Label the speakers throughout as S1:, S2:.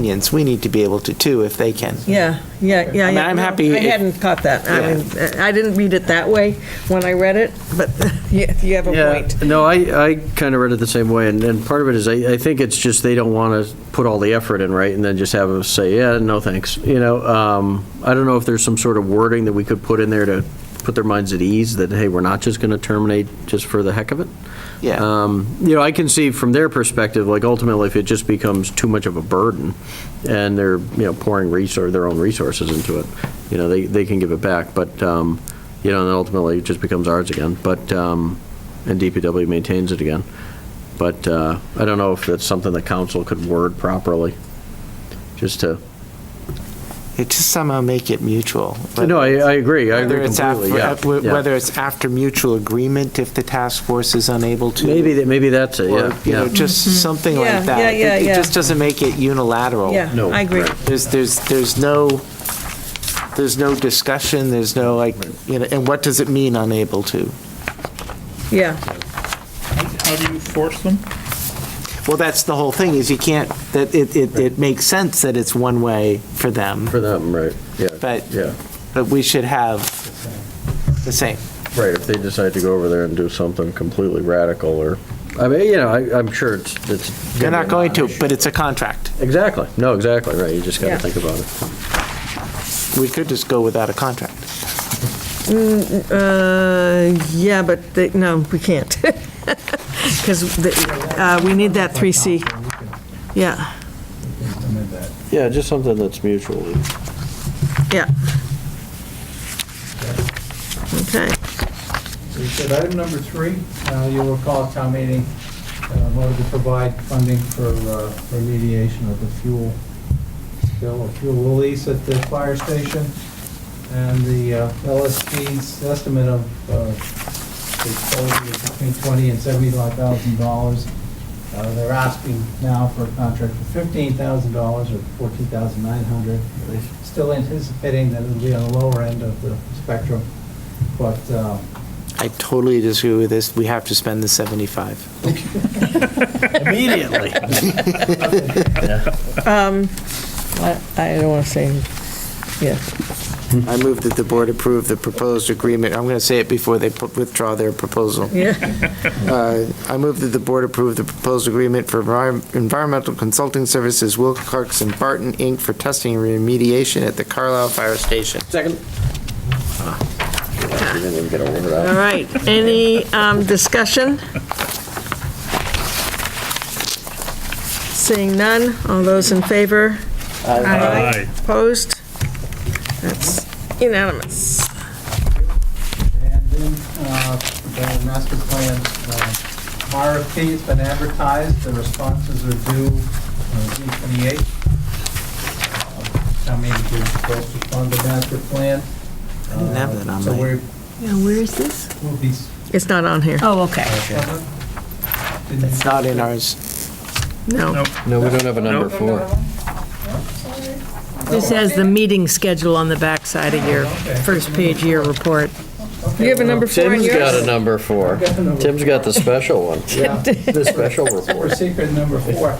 S1: unions, we need to be able to too, if they can.
S2: Yeah, yeah, yeah.
S1: I mean,
S2: yeah.
S1: I'm
S2: No,
S1: happy
S2: I
S1: if-
S2: hadn't caught that. I
S1: Yeah.
S2: mean, I didn't read it that way when I read it, but you you have a
S3: Yeah,
S2: point.
S3: no, I, I kind of read it the same way, and, and part of it is, I, I think it's just they don't want to put all the effort in, right, and then just have us say, yeah, no thanks, you know, um, I don't know if there's some sort of wording that we could put in there to put their minds at ease, that, hey, we're not just going to terminate just for the heck of it.
S1: Yeah.
S3: Um, You know, I can see from their perspective, like ultimately, if it just becomes too much of a burden, and they're, you know, pouring resource, their own resources into it, you know, they, they can give it back, but, um, you know, and then ultimately, it just becomes ours again, but, um, and DPW maintains it again. But uh, I don't know if that's something the council could word properly, just to,
S1: It just somehow make it mutual.
S3: no, I, I agree, I
S1: Whether
S3: agree
S1: it's after,
S3: completely, yeah.
S1: af- wh-
S3: yeah.
S1: whether it's after mutual agreement, if the task force is unable to.
S3: Maybe, that- maybe that's it,
S1: Or,
S3: yeah,
S1: you know,
S3: yeah.
S1: just something
S2: Mm-hmm. Yeah,
S1: like that.
S2: yeah, yeah,
S1: It-
S2: yeah.
S1: It just doesn't make it unilateral.
S2: Yeah,
S3: Oh, No,
S2: I agree.
S3: right.
S1: There's, there's, there's no, there's no discussion, there's no like, you know, and what does it mean unable to?
S2: Yeah,
S4: How do you force them?
S1: Well, that's the whole thing, is you can't, that it, it, it makes sense that it's one way for them,
S3: For them, right, yeah.
S1: But-
S3: Yeah.
S1: but we should have the same.
S3: Right, if they decide to go over there and do something completely radical or, I mean, you know, I, I'm sure it's, it's.
S1: They're not going to, but it's a contract.
S3: Exactly, no, exactly, right, you just
S2: Yeah.
S3: gotta think about it.
S1: We could just go without a contract.
S2: Uh, yeah, but, they- no, we can't. Because we need that 3C. Yeah,
S3: Yeah, just something that's mutual.
S2: yeah. Okay.
S5: So you said item number three, uh, you'll recall at town meeting uh, voted to provide funding for uh, remediation of the fuel spill or fuel release at the fire station. And the uh, LSP's estimate of uh, the total is between twenty and seventy-five thousand dollars. Uh, They're asking now for a contract for fifteen thousand dollars or fourteen thousand nine hundred. They're Still anticipating that it'll be on the lower end of the spectrum, but um,
S1: I totally disagree with this, we have to spend the 75.
S3: Immediately.
S1: Um,
S2: I I don't want to say, yeah.
S1: I move that the board approve the proposed agreement, I'm going to say it before they put- withdraw their proposal.
S2: Yeah,
S1: Uh, I move that the board approve the proposed agreement for envi- environmental consulting services Will Clarkson Barton, Inc. for testing and remediation at the Carlisle Fire Station.
S3: Second. Ah, You didn't even get a word
S2: all
S3: out.
S2: right. Any um, discussion? Seeing none, all those in favor?
S4: Aye.
S2: Opposed? That's unanimous.
S5: And then, uh, the master plan, uh, RFP has been advertised, the responses are due uh, June Uh, 28th. Town meeting is supposed to fund the master plan. I
S1: didn't have that on
S5: So
S1: my-
S5: we're,
S6: Yeah, where is this?
S5: we'll be.
S2: It's not on here.
S6: Oh, okay.
S1: It's not in ours.
S2: No.
S4: No.
S3: No, we don't have a number four.
S6: This has the meeting schedule on the backside of your first page of your report.
S2: You have a number four in
S3: Tim's got a
S2: yours?
S3: number four.
S5: I've got a number
S3: Tim's got the special one, the special
S5: We're
S3: report.
S5: secret number four. Uh,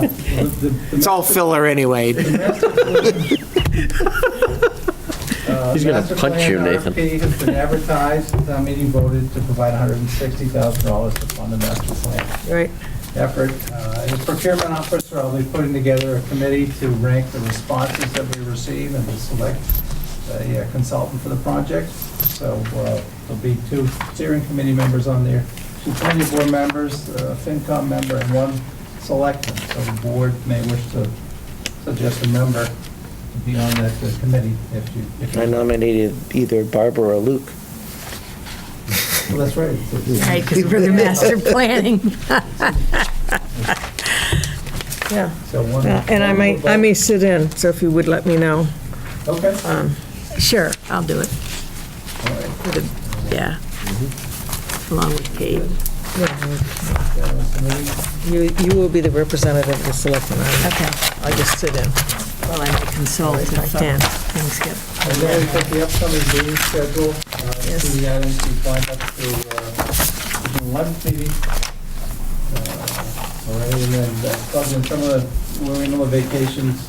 S5: the- the-
S1: It's all filler anyway.
S5: Uh,
S3: He's gonna
S5: master
S3: punch
S5: plan
S3: you, Nathan.
S5: RFP has been advertised, town meeting voted to provide $160,000 to fund the master plan.
S2: Right.
S5: effort. Uh, As procurement officer, I'll be putting together a committee to rank the responses that we receive and to select a uh, consultant for the project. So uh, there'll be two steering committee members on there, two planning board members, a FinCom member, and one selectman. So the board may wish to suggest a member to be on that uh, committee if you, if you...
S1: I nominated either Barbara or Luke.
S5: Well, That's right.
S6: Right, because we're the master planning.
S2: Yeah.
S5: So one-
S2: Uh, And I may, I may sit in, so if you would let me know.
S5: Okay.
S2: um,
S6: Sure, I'll do it.
S5: All right.
S6: Yeah.
S2: Mm-hmm.
S6: Along with Kate.
S2: You, you will be the representative of the selectmen. I-
S6: Okay.
S2: I'll just sit in.
S6: Well, I might consult if uh,
S2: Yeah.
S6: things get,
S5: And then we put the upcoming meeting schedule, uh, to the items we find up to, uh, the lunch meeting. Uh, All right, and then, uh, some of the, we're in the vacations,